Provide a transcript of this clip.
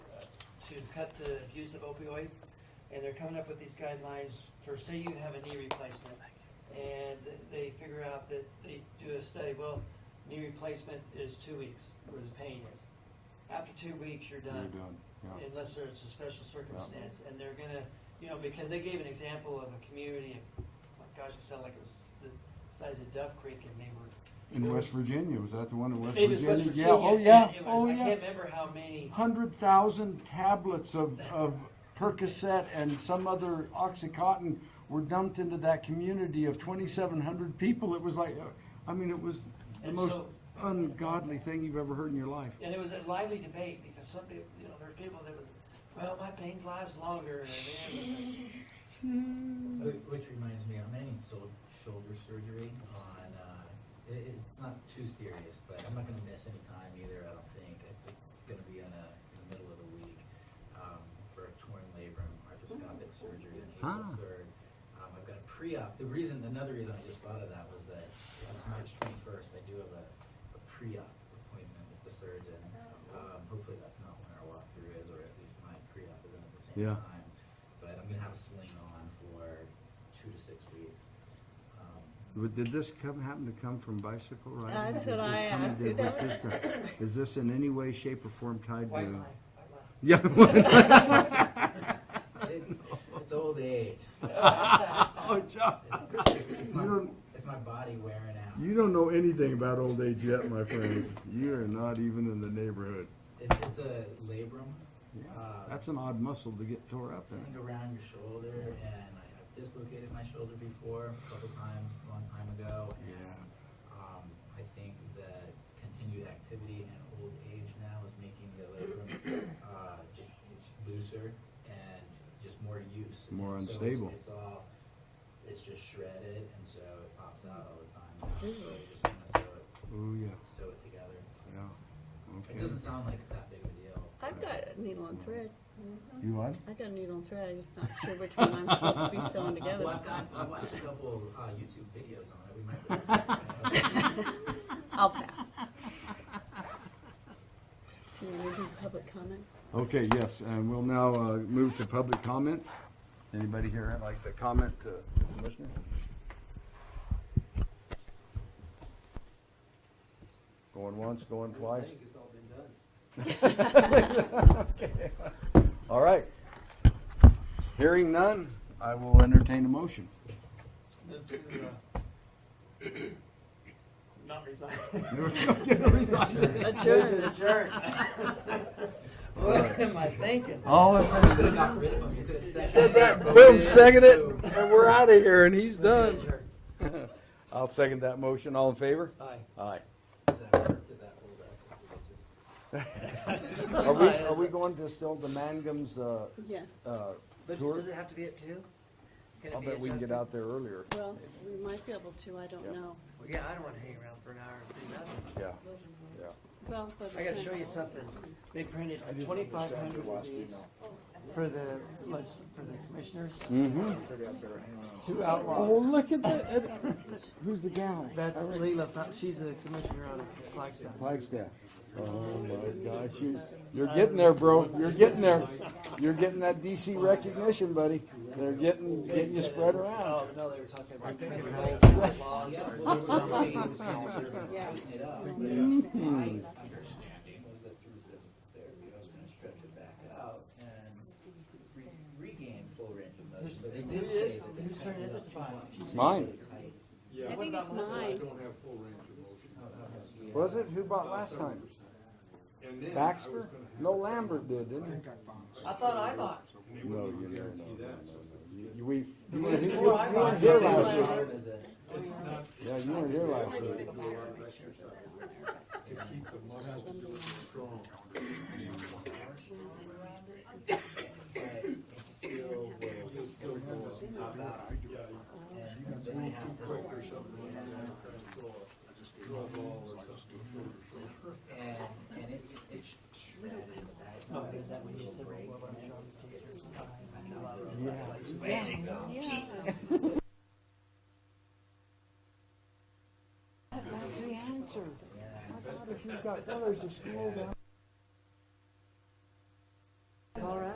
to cut the use of opioids, and they're coming up with these guidelines for, say you have a knee replacement, and they figure out that they do a study, well, knee replacement is two weeks where the pain is. After two weeks, you're You're done, done, yeah. unless there's a special circumstance, and they're gonna, you know, because they gave an example of a community, of, oh gosh, it sounded like it was the size of Duff Creek, and they were In West Virginia, was that the one in West Maybe it was West Virginia? Yeah, oh Virginia, yeah, and it was- oh I yeah. can't remember how many, Hundred thousand tablets of, of Percocet and some other Oxycontin were dumped into that community of twenty-seven hundred people. It was like, uh, I mean, it was the And most so- ungodly thing you've ever heard in your life. and it was a lively debate, because some people, you know, there were people that was, well, my pains last longer, and then, Whi- Which reminds me, I'm having sol- shoulder surgery on, uh, it, it's not too serious, but I'm not gonna miss any time either, I don't think. It's, it's gonna be in a, in the middle of the week, um, for a torn labrum arthroscopic surgery on Ah. April third. Um, I've got a pre-op, the reason, another reason I just thought of that was that it's March twenty-first, I do have a, a pre-op appointment with the surgeon. Um, hopefully that's not when our walkthrough is, or at least my pre-op isn't at the same Yeah. time time, but I'm gonna have a sling on for two to six weeks. Um, Would- Did this come, happen to come from bicycle riding? That's Did what this I come- asked, did- you was this a- Is this in any way, shape, or form tied white line, to? white line. Yeah. it- It's it's old age. Oh, John, It's it's You my, don't- it's my body wearing out. you don't know anything about old age yet, my friend. You are not even in the neighborhood. It- It's a labrum. uh, That's an odd muscle to get tore up thing in. around your shoulder, and I have dislocated my shoulder before a couple times, a long time ago. and, Um, I think that continued activity and old age now is making the labrum, uh, just, it's looser and just more use. More So it's- unstable. It's all, it's just shredded, and so it pops out all the time. So you just kind of sew it, Oh, yeah, sew it together. yeah. It Okay. doesn't sound like that big of a deal. I've got a needle and thread. You what? I got a needle and thread, I'm just not sure which one I'm supposed to be sewing together. Well, I've got, I watched a couple, uh, YouTube videos on it, we might. I'll pass. Do you want to do public comment? Okay, yes, and we'll now uh, move to public comment. Anybody here I'd like to comment to the commissioner? Going once, going twice? it's all been done. Okay. All right. Hearing none, I will entertain a motion. Move to, uh, Not resign. Adjourn. Adjourn. What am I thinking? All in You could have got rid of him. You could have said that. and we're out of here, and he's Adjourn. I'll second that motion. All in favor? Aye. Aye. Does that work? Does that hold up? Is it just- Are we, are we going to still the Mangum's, uh, Yes, uh, But Tour? does it have to be at two? Can it I'll be bet we can get adjusted? out there earlier. well, we might be able to, I don't know. Well, Yeah, I don't wanna hang around for an hour and do nothing. Yeah. Well, by the I gotta time- show you something. They printed twenty-five hundred of these for the, let's, for the commissioners Mm-hmm. to outlaw. Oh, look at that. Who's the gal? That's Leila, Fa- she's a commissioner out of Flagstaff. Flagstaff. Oh my gosh, you, you're getting there, bro. You're getting there. You're getting that DC recognition, buddy. They're getting, getting you spread around. Oh, no, they were talking about criminal laws and laws. Yeah, well, the company was gonna Yeah. tighten it up, but Hmm. my understanding was that through the therapy, I was gonna stretch it back out and re- regain full range of motion, but they did say that they Whose turn tightened is it it up to too find? much. Mine. I think it's mine. Was it? Who bought last time? Baxter? No, Lambert did, didn't I thought I bought. he? No, you never know. no, no, no. You, we, you weren't here- you weren't here last week. How is it? Yeah, you weren't here last week. but it's still will still go up out. And then I have to. And, and it's, it's shredded, that's something that when you break, it's, it's. Yeah. Yeah. That's the answer. I thought if you've got brothers to school down.